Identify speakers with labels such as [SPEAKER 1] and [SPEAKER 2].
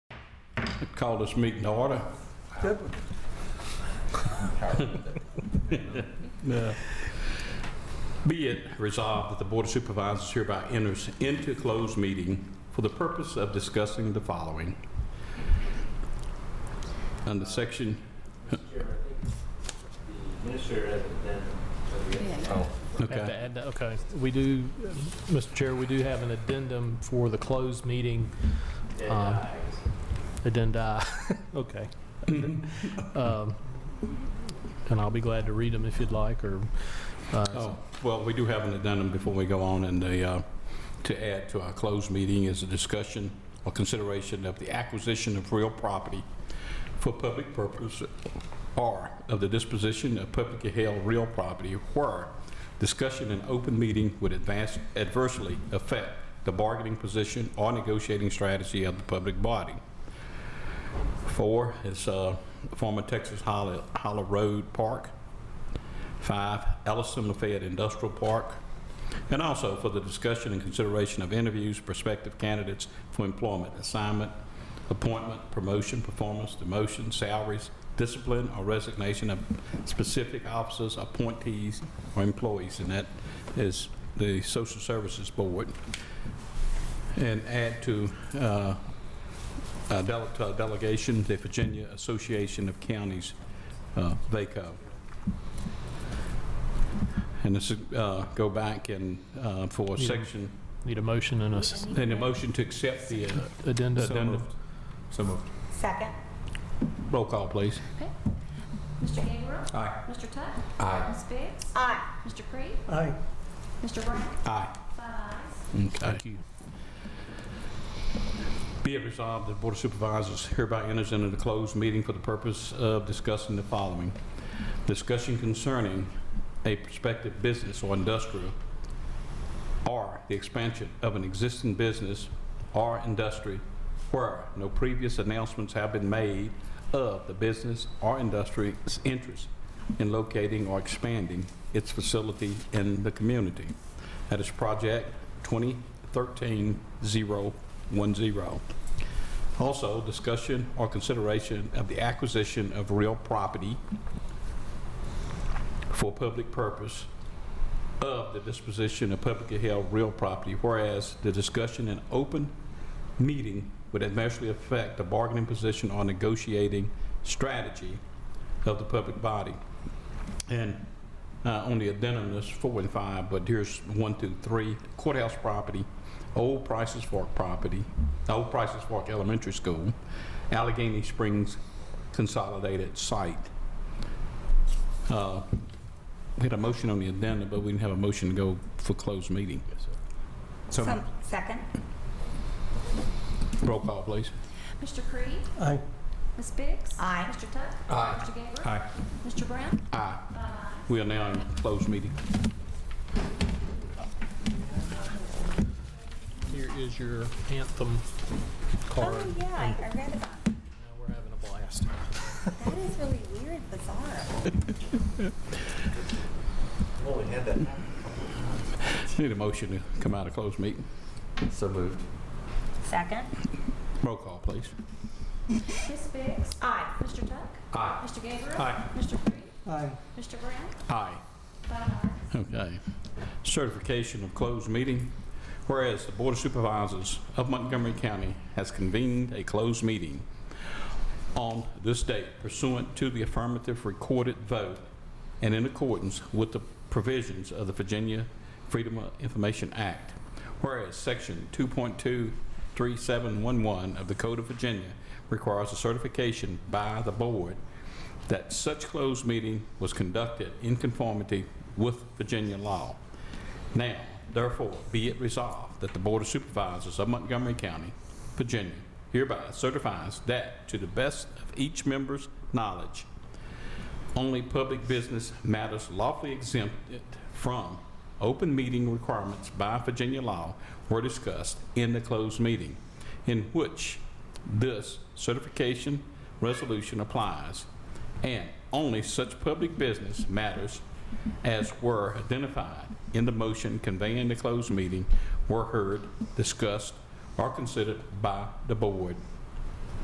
[SPEAKER 1] Call this meeting to order. Yeah. Be it resolved that the Board of Supervisors hereby enters into closed meeting for the purpose of discussing the following. Under section,
[SPEAKER 2] Minister hasn't done.
[SPEAKER 3] Have to
[SPEAKER 1] okay,
[SPEAKER 3] add that, okay. We do, Mr. Chair, we do have an addendum for the closed meeting, Um, addenda, okay. Um, And I'll be glad to read them if you'd like, or, uh,
[SPEAKER 1] oh, well, we do have an addendum before we go on, and the, uh, to add to our closed meeting is a discussion or consideration of the acquisition of real property for public purpose or of the disposition of publicly held real property where discussion in open meeting would advance adversely affect the bargaining position or negotiating strategy of the public body. Four is uh, former Texas Hollow Hollow Road Park. Five, Ellison Lafayette Industrial Park. And also for the discussion and consideration of interviews, prospective candidates for employment, assignment, appointment, promotion, performance, demotion, salaries, discipline, or resignation of specific officers, appointees, or employees, and that is the Social Services Board. And add to, uh, uh, dele- to a delegation, the Virginia Association of Counties, uh, VACO. And this is, uh, go back and uh, for
[SPEAKER 3] Yeah.
[SPEAKER 1] section,
[SPEAKER 3] need a motion and a s-
[SPEAKER 1] and a motion to accept the uh,
[SPEAKER 3] addenda.
[SPEAKER 1] So moved.
[SPEAKER 4] So moved.
[SPEAKER 5] Second.
[SPEAKER 1] Roll call, please.
[SPEAKER 6] Mr. Gabriel?
[SPEAKER 4] Aye.
[SPEAKER 6] Mr. Tuck?
[SPEAKER 4] Aye.
[SPEAKER 6] Ms. Biggs?
[SPEAKER 5] Aye.
[SPEAKER 6] Mr. Creed?
[SPEAKER 4] Aye.
[SPEAKER 6] Mr. Brown?
[SPEAKER 1] Aye.
[SPEAKER 6] Five ayes.
[SPEAKER 1] Okay.
[SPEAKER 3] Thank you.
[SPEAKER 1] Be it resolved that Board of Supervisors hereby enters into the closed meeting for the purpose of discussing the following. Discussion concerning a prospective business or industrial, or the expansion of an existing business or industry where no previous announcements have been made of the business or industry's interest in locating or expanding its facility in the community. That is Project 2013-010. Also, discussion or consideration of the acquisition of real property for public purpose of the disposition of publicly held real property, whereas the discussion in open meeting would adversely affect the bargaining position or negotiating strategy of the public body. And uh, on the addendum, there's four and five, but here's one, two, three, courthouse property, Old Prices Fork property, Old Prices Fork Elementary School, Allegheny Springs Consolidated Site. Uh, We had a motion on the addendum, but we didn't have a motion to go for closed meeting.
[SPEAKER 4] So moved.
[SPEAKER 5] Some- Second.
[SPEAKER 1] Roll call, please.
[SPEAKER 6] Mr. Creed?
[SPEAKER 4] Aye.
[SPEAKER 6] Ms. Biggs?
[SPEAKER 5] Aye.
[SPEAKER 6] Mr. Tuck?
[SPEAKER 4] Aye.
[SPEAKER 6] Mr. Gabriel?
[SPEAKER 1] Aye.
[SPEAKER 6] Mr. Brown?
[SPEAKER 1] Aye.
[SPEAKER 6] Five ayes.
[SPEAKER 1] We are now in closed meeting.
[SPEAKER 3] Here is your anthem card.
[SPEAKER 5] Oh, yeah, I I read about that.
[SPEAKER 3] Now we're having a blast.
[SPEAKER 5] That is really weird, bizarre.
[SPEAKER 2] Well, we had that.
[SPEAKER 1] Need a motion to come out of closed meeting.
[SPEAKER 4] So moved.
[SPEAKER 5] Second.
[SPEAKER 1] Roll call, please.
[SPEAKER 6] Ms. Biggs?
[SPEAKER 5] Aye.
[SPEAKER 6] Mr. Tuck?
[SPEAKER 4] Aye.
[SPEAKER 6] Mr. Gabriel?
[SPEAKER 1] Aye.
[SPEAKER 6] Mr. Creed?
[SPEAKER 4] Aye.
[SPEAKER 6] Mr. Brown?
[SPEAKER 1] Aye.
[SPEAKER 6] Five ayes.
[SPEAKER 1] Okay. Certification of closed meeting. Whereas the Board of Supervisors of Montgomery County has convened a closed meeting on this date pursuant to the affirmative recorded vote and in accordance with the provisions of the Virginia Freedom of Information Act. Whereas Section 2.23711 of the Code of Virginia requires a certification by the board that such closed meeting was conducted in conformity with Virginia law. Now, therefore, be it resolved that the Board of Supervisors of Montgomery County, Virginia hereby certifies that to the best of each member's knowledge, only public business matters lawfully exempted from open meeting requirements by Virginia law were discussed in the closed meeting, in which this certification resolution applies, and only such public business matters as were identified in the motion conveying the closed meeting were heard, discussed, or considered by the board